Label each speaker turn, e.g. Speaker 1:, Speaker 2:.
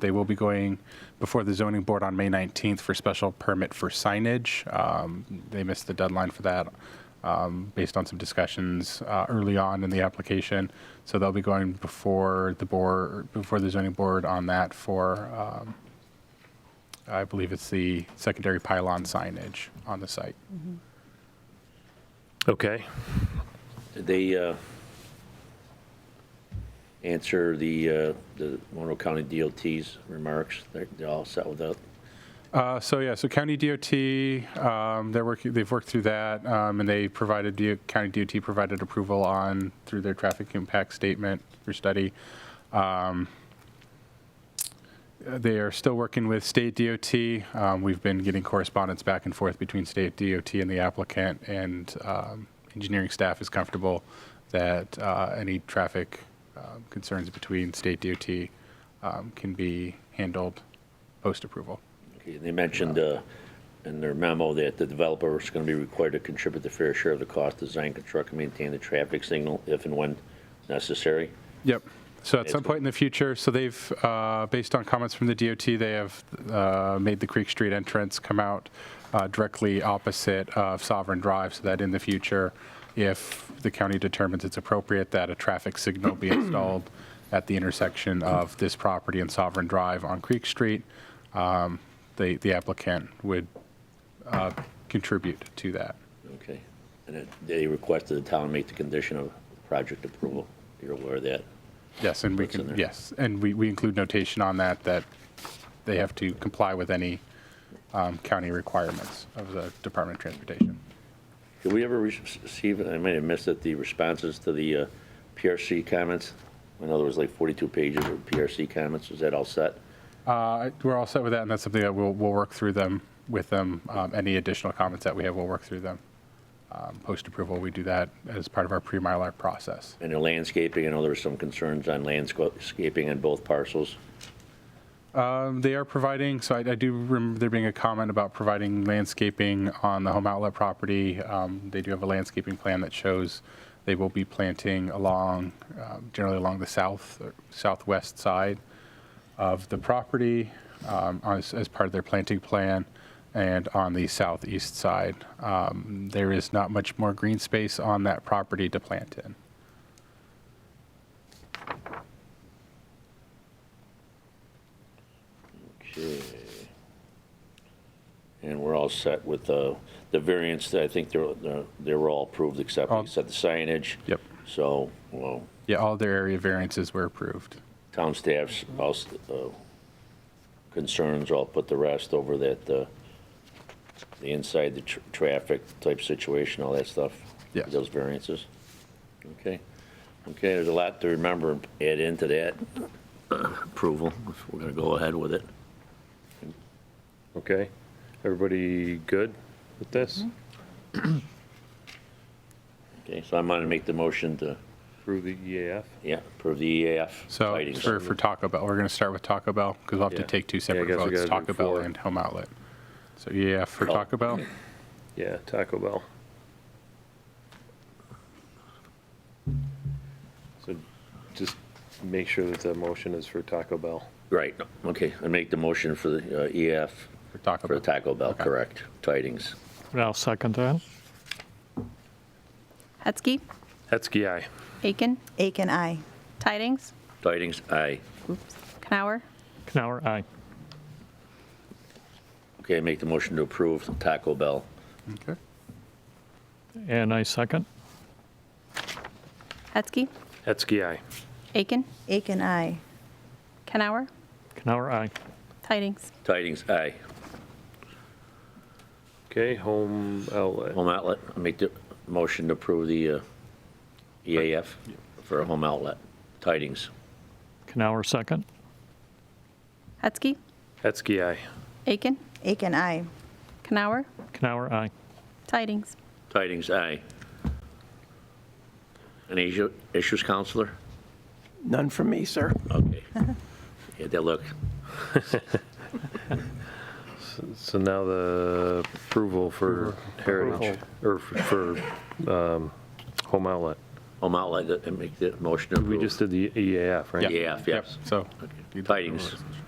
Speaker 1: They will be going before the zoning board on May 19th for special permit for signage. Um, They missed the deadline for that um, based on some discussions uh, early on in the application. So they'll be going before the board, before the zoning board on that for, um, I believe it's the secondary pylon signage on the site.
Speaker 2: Okay.
Speaker 3: Did they uh, answer the, uh, the Monroe County DOT's remarks? They're, they're all set with that?
Speaker 1: Uh, So yeah, so county DOT, um, they're working, they've worked through that, um, and they provided, DO county DOT provided approval on, through their traffic impact statement or study. Um, They are still working with state DOT. Um, We've been getting correspondence back and forth between state DOT and the applicant, and um, engineering staff is comfortable that uh, any traffic um, concerns between state DOT um, can be handled post-approval.
Speaker 3: Okay, They mentioned uh, in their memo that the developer is going to be required to contribute the fair share of the cost, design, construct, and maintain the traffic signal if and when necessary.
Speaker 1: Yep. So at some
Speaker 3: Basically.
Speaker 1: point in the future, so they've, uh, based on comments from the DOT, they have uh, made the Creek Street entrance come out uh, directly opposite of Sovereign Drive, so that in the future, if the county determines it's appropriate, that a traffic signal be installed at the intersection of this property and Sovereign Drive on Creek Street, um, the the applicant would uh, contribute to that.
Speaker 3: Okay. And it- they requested the town make the condition of project approval. You're aware of that?
Speaker 1: Yes, and we
Speaker 3: That's in
Speaker 1: can,
Speaker 3: there.
Speaker 1: yes, and we, we include notation on that, that they have to comply with any um, county requirements of the Department of Transportation.
Speaker 3: Did we ever re- receive, I might have missed it, the responses to the uh, PRC comments? I know there was like 42 pages of PRC comments. Is that all set?
Speaker 1: Uh, We're all set with that, and that's something that we'll, we'll work through them, with them. Um, Any additional comments that we have, we'll work through them. Um, Post-approval, we do that as part of our pre-Mylar process.
Speaker 3: And the landscaping, I know there were some concerns on landscaping on both parcels.
Speaker 1: Um, They are providing, so I I do remember there being a comment about providing landscaping on the home outlet property. Um, They do have a landscaping plan that shows they will be planting along, um, generally along the south, or southwest side of the property um, as as part of their planting plan and on the southeast side. Um, There is not much more green space on that property to plant in.
Speaker 3: Okay. And we're all set with uh, the variance that I think they were, they're- they were all approved except,
Speaker 1: All-
Speaker 3: except the signage.
Speaker 1: Yep.
Speaker 3: So, well,
Speaker 1: Yeah, all their area variances were approved.
Speaker 3: town staff's all s- uh, concerns, I'll put the rest over that, uh, the inside, the tr- traffic type situation, all that stuff.
Speaker 1: Yes.
Speaker 3: Those variances. Okay. Okay, there's a lot to remember and add into that approval, if we're going to go ahead with it.
Speaker 2: Okay. Everybody good with this?
Speaker 3: Okay, so I'm going to make the motion to,
Speaker 2: Through the E EAF?
Speaker 3: yeah, approve the E EAF.
Speaker 1: So
Speaker 3: sightings.
Speaker 1: for, for Taco Bell, we're going to start with Taco Bell because we'll have to
Speaker 2: Yeah.
Speaker 1: take two
Speaker 2: Yeah, I
Speaker 1: separate
Speaker 2: guess we
Speaker 1: votes,
Speaker 2: gotta do
Speaker 1: Taco Bell
Speaker 2: four.
Speaker 1: and Home Outlet. So yeah, for
Speaker 3: Cool.
Speaker 1: Taco Bell,
Speaker 2: Yeah, Taco Bell. So just make sure that the motion is for Taco Bell.
Speaker 3: Right, okay, I make the motion for the uh, EAF
Speaker 1: for Taco
Speaker 3: for the
Speaker 1: Bell.
Speaker 3: Taco Bell,
Speaker 1: Okay.
Speaker 3: correct, tidings.
Speaker 4: I'll second that.
Speaker 5: Hetzke,
Speaker 2: Hetzke, aye.
Speaker 5: Aiken,
Speaker 6: Aiken, I.
Speaker 5: Tidings,
Speaker 3: Tidings, aye.
Speaker 5: Canower,
Speaker 4: Canower, aye.
Speaker 3: Okay, I make the motion to approve Taco Bell.
Speaker 1: Okay.
Speaker 4: And I second.
Speaker 5: Hetzke,
Speaker 2: Hetzke, aye.
Speaker 5: Aiken,
Speaker 6: Aiken, I.
Speaker 5: Canower,
Speaker 4: Canower, aye.
Speaker 5: Tidings,
Speaker 3: Tidings, aye.
Speaker 2: Okay, home outlet.
Speaker 3: Home outlet, I make the motion to approve the uh, EAF for a home outlet. Tidings,
Speaker 4: Canower, second.
Speaker 5: Hetzke,
Speaker 2: Hetzke, aye.
Speaker 5: Aiken,
Speaker 6: Aiken, I.
Speaker 5: Canower,
Speaker 4: Canower, aye.
Speaker 5: Tidings.
Speaker 3: tidings, aye. Any issue- issues, counselor?
Speaker 7: None from me, sir.
Speaker 3: Okay. Yeah, that look.
Speaker 2: So now the approval for Heritage, or for for, um, home outlet.
Speaker 3: Home outlet, I make the motion to
Speaker 2: We
Speaker 3: approve.
Speaker 2: just did the EAF, E right?
Speaker 3: Yeah,
Speaker 1: Yep,
Speaker 3: yes.
Speaker 1: So.
Speaker 3: Tidings.